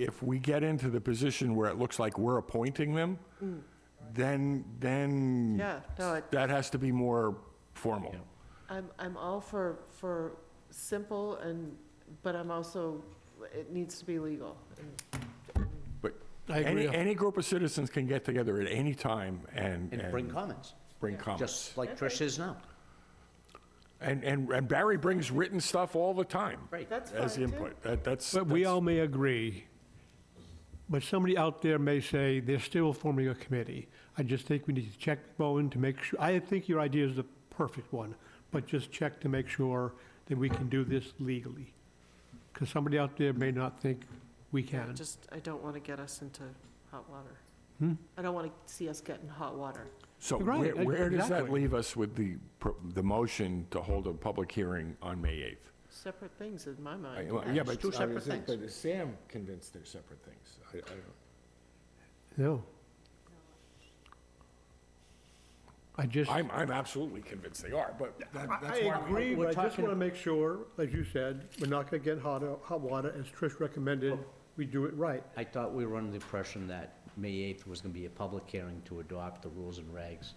if we get into the position where it looks like we're appointing them, then, then. Mm. Yeah, no, it- That has to be more formal. I'm, I'm all for, for simple and, but I'm also, it needs to be legal. But I any, agree. any group of citizens can get together at any time and. and bring comments, Bring comments. just like Trish is now. And, and, and Barry brings written stuff all the time. Right. That's As fine, too. input. That, that's. But we that's- all may agree, but somebody out there may say they're still forming a committee. I just think we need to check Bowen to make sure, I think your idea is the perfect one, but just check to make sure that we can do this legally. Because somebody out there may not think we I can. Just, I don't want to get us into hot water. Hmm? I don't want to see us get in hot water. So Right, where, e- where does that exactly. leave us with the, pro- the motion to hold a public hearing on May 8th? Separate things in my I- mind. well, Yeah, but. It's two I was separate saying, things. But is Sam convinced they're separate things? I, I don't. No. I just. I'm, I'm absolutely convinced they are, but that- I- that's why. I agree, we're but I just talking- want to make sure, as you said, we're not going to get hot, hot water, as Trish recommended, we do it right. I thought we were under the impression that May 8th was going to be a public hearing to adopt the rules and regs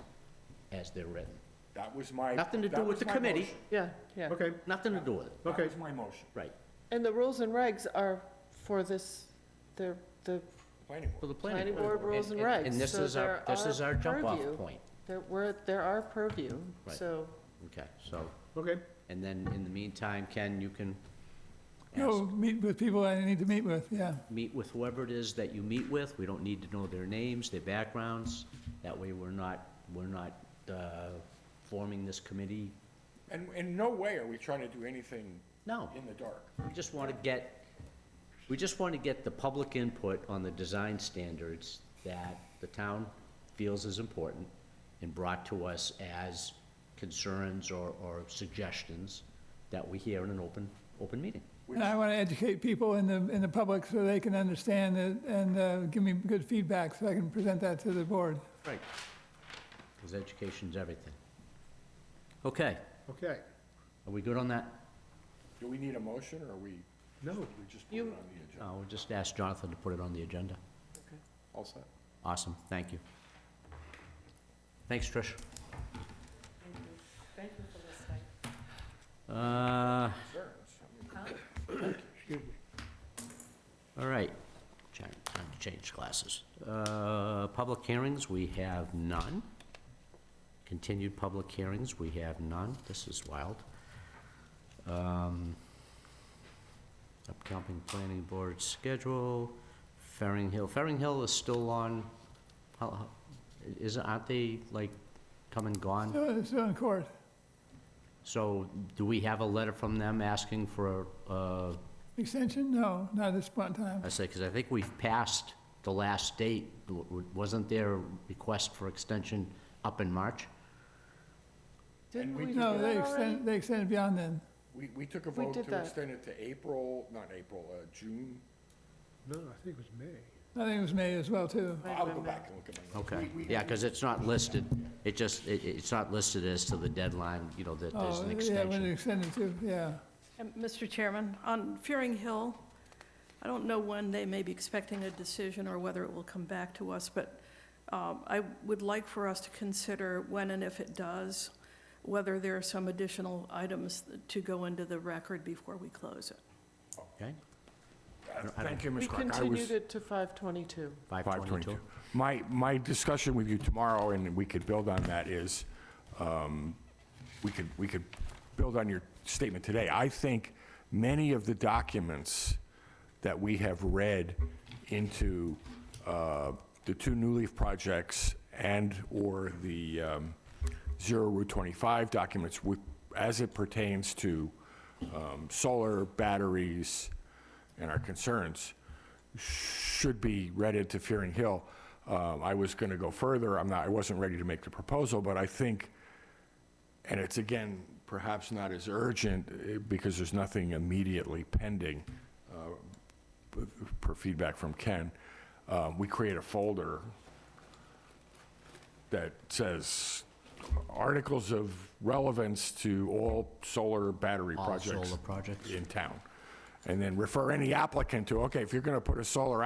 as they're written. That was my. Nothing to that do was with the my committee, motion. Yeah, yeah. Okay, nothing to do with it, That okay. was my motion, right, And the rules and regs are for this, they're, the planning for board. the planning Planning board. board rules and regs, And this so is our, they're this our is our jump-off purview. point. There were, there are purview, Right. so, Okay, so, Okay, and then in the meantime, Ken, you can No, Oh, meet with people I need to meet with, yeah. meet with whoever it is that you meet with. We don't need to know their names, their backgrounds. That way, we're not, we're not uh, forming this committee. And in no way are we trying to do anything No, in the dark. we just want to get, we just want to get the public input on the design standards that the town feels is important and brought to us as concerns or, or suggestions that we hear in an open, open meeting. And I want to educate people in the, in the public so they can understand it and uh, give me good feedback so I can present that to the board. Right. Because education's everything. Okay, okay. are we good on that? Do we need a motion, or are we, No, we just put it on You- the agenda? I'll Uh, just ask Jonathan to put it on the agenda. All set. Awesome, thank you. Thanks, Trish. thank you for listening. Uh, All right, Cha- time to change classes. Uh, Public hearings, we have none. Continued public hearings, we have none. This is wild. Um, Upcoming planning board schedule, Ferring Hill. Ferring Hill is still on, how- how- is, aren't they like come and gone? Still, still in court. So do we have a letter from them asking for, uh, Extension? No, not at this point in time. I say, because I think we've passed the last date. W- w- Wasn't there a request for extension up in March? Didn't we do No, they that already? extended, they extended beyond then. We, we took a We vote did to that. extend it to April, not April, uh, June. No, I think it was May. I think it was May as well, too. I'll go back and look at my notes. Okay, yeah, because it's not listed, it just, it, it's not listed as to the deadline, you know, that there's Oh, an yeah, when it extension. extended to, yeah. And, Mr. Um, Chairman, on Fearing Hill, I don't know when they may be expecting a decision or whether it will come back to us, but um, I would like for us to consider when and if it does, whether there are some additional items to go into the record before we close it. Okay, Thank you, We Ms. Clark. I was- continued it to 522. 522. My, my discussion with you tomorrow, and we could build on that, is, um, we could, we could build on your statement today. I think many of the documents that we have read into uh, the two New Leaf projects and/or the um, Zero Route 25 documents, with- as it pertains to um, solar, batteries, and our concerns, should be read into Fearing Hill. Um, I was going to go further, I'm not, I wasn't ready to make the proposal, but I think, and it's again, perhaps not as urgent, eh, because there's nothing immediately pending, uh, p- per feedback from Ken, uh, we create a folder that says articles of relevance to all solar battery All projects solar projects. in town. and then refer any applicant to, okay, if you're going to put a solar